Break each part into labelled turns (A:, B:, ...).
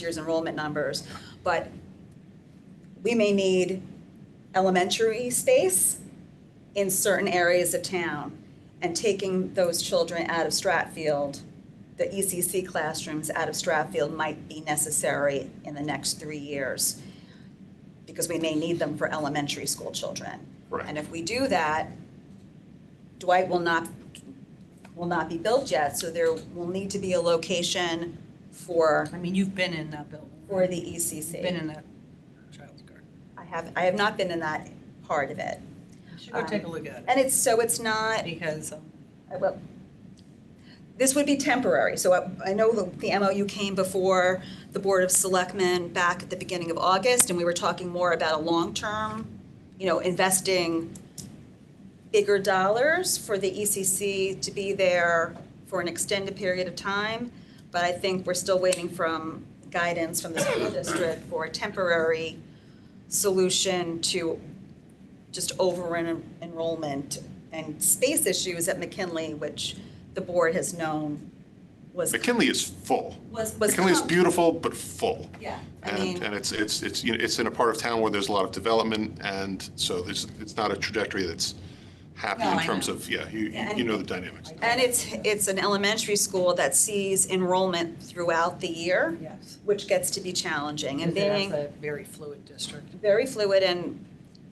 A: year's enrollment numbers, but we may need elementary space in certain areas of town. And taking those children out of Stratfield, the ECC classrooms out of Stratfield might be necessary in the next three years because we may need them for elementary school children.
B: Correct.
A: And if we do that, Dwight will not, will not be built yet, so there will need to be a location for,
C: I mean, you've been in that building.
A: for the
C: You've Been
A: ECC.
C: in that child's garden.
A: I have, I have not been in that part of it.
C: You should go take a look at
A: Uh, And it's, so it's
C: it,
A: not,
C: because um,
A: well, this would be temporary. So I, I know the the MOU came before the Board of Selectmen back at the beginning of August, and we were talking more about a long-term, you know, investing bigger dollars for the ECC to be there for an extended period of time. But I think we're still waiting from guidance from the school district for a temporary solution to just over en- enrollment and space issues at McKinley, which the board has known was.
B: McKinley is full.
A: Was, was.
B: McKinley is
A: com-
B: beautiful, but full.
A: Yeah, I
B: And,
A: mean,
B: and it's, it's, it's, you know, it's in a part of town where there's a lot of development, and so there's, it's not a trajectory that's happy
C: No,
B: in
C: I
B: terms
C: know.
B: of, yeah, you,
A: Yeah,
B: you
A: and-
B: know the dynamics.
A: and it's, it's an elementary school that sees enrollment throughout the year,
C: yes.
A: which gets to be challenging and
C: because it has
A: being
C: a very fluid district.
A: very fluid and,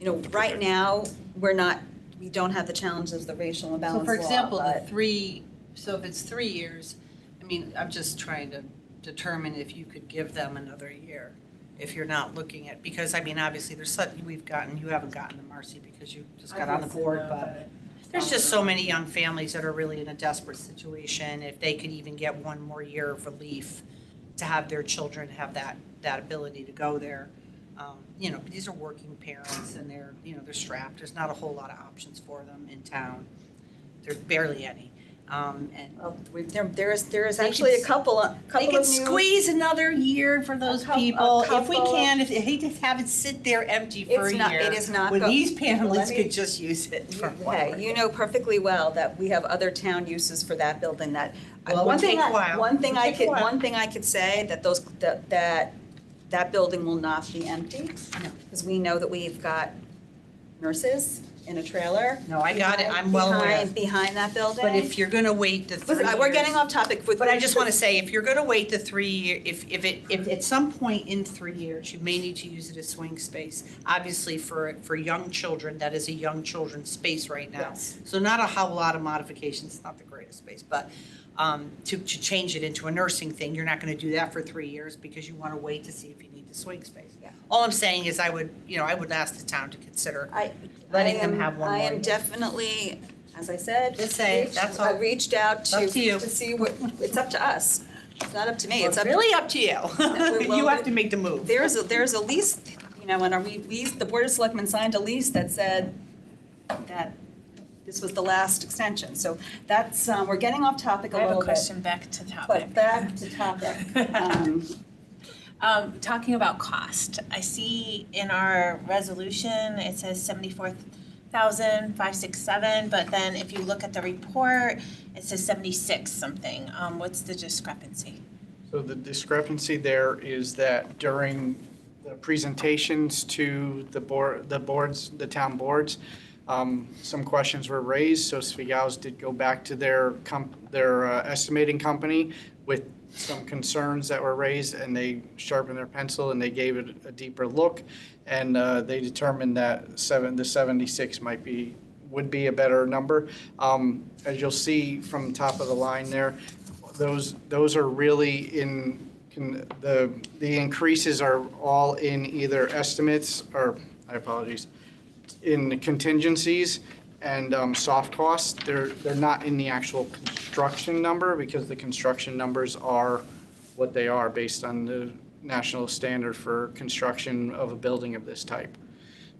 A: you know, right
B: protect.
A: now, we're not, we don't have the challenges of the racial imbalance
C: So for
A: law,
C: example, the
A: but-
C: three, so if it's three years, I mean, I'm just trying to determine if you could give them another year, if you're not looking at, because I mean, obviously, there's something we've gotten, you haven't gotten to Marcy because you just got on the board, but there's just so many young families that are really in a desperate situation. If they could even get one more year of relief to have their children have that, that ability to go there. Um, You know, these are working parents and they're, you know, they're strapped. There's not a whole lot of options for them in town. There's barely any. Um, And
A: Well, uh, we- There, there is, there is
C: They could
A: actually a
C: s-
A: couple, a
C: they
A: couple
C: can
A: of new.
C: squeeze another year for those
A: A cou- a
C: people. If we
A: couple of-
C: can, if, I hate to have it sit there empty for a
A: It's not, it
C: year.
A: is not.
C: When
A: go-
C: these
A: Let
C: families
A: me-
C: could just use it for one more
A: Okay, you
C: year.
A: know perfectly well that we have other town uses for that building that. I-
C: Well, it would
A: one thing
C: take a
A: I-
C: while.
A: One thing
C: It would
A: I
C: take a
A: could,
C: while.
A: one thing I could say, that those, that, that, that building will not be empty.
C: No.
A: Because we know that we've got nurses in a trailer.
C: No, I got it. I'm well aware.
A: Behind, behind that building.
C: But if you're gonna wait the three
A: Listen, I- we're getting
C: years-
A: off topic with.
C: But I just want to say, if you're going to wait the three, year, if, if it, if at some point in three years, you may need to use it as swing space. Obviously, for, for young children, that is a young children's space right now.
A: Yes.
C: So not a whole lot of modifications, it's not the greatest space, but um, to, to change it into a nursing thing, you're not going to do that for three years because you want to wait to see if you need the swing space.
A: Yeah.
C: All I'm saying is I would, you know, I would ask the town to consider.
A: I-
C: letting
A: I
C: them
A: am-
C: have one
A: I
C: more
A: am
C: year.
A: definitely, as I said.
C: Just saying,
A: reached-
C: that's
A: I
C: all.
A: reached out to.
C: Up to you.
A: see what, it's up to us. It's not up to me, it's
C: It's
A: up to
C: really up to you.
A: well,
C: You have to make the move.
A: There's, a there's a lease, you know, and we, we, the Board of Selectmen signed a lease that said that this was the last extension. So that's, um, we're getting off topic a
D: I have
A: little
D: a
A: bit.
D: question back to topic.
A: But back to topic. Um,
D: Um, talking about cost, I see in our resolution, it says seventy-four thousand five six seven, but then if you look at the report, it says seventy-six something. Um, what's the discrepancy?
E: So the discrepancy there is that during the presentations to the board, the boards, the town boards, um, some questions were raised, so Svigao's did go back to their comp, their uh, estimating company with some concerns that were raised, and they sharpened their pencil and they gave it a deeper look. And uh, they determined that seven, the 76 might be, would be a better number. Um, As you'll see from top of the line there, those, those are really in, can- the, the increases are all in either estimates, or, I apologies, in contingencies and um, soft costs. They're, they're not in the actual construction number, because the construction numbers are what they are based on the national standard for construction of a building of this type.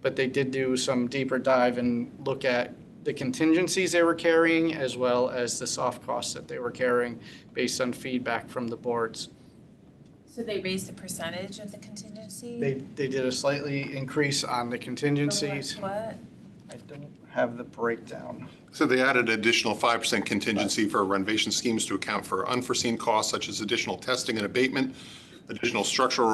E: But they did do some deeper dive and look at the contingencies they were carrying as well as the soft costs that they were carrying based on feedback from the boards.
D: So they raised the percentage of the contingency?
E: They, they did a slightly increase on the contingencies.
D: What?
E: I don't have the breakdown.
B: So they added additional 5% contingency for renovation schemes to account for unforeseen costs such as additional testing and abatement, additional structural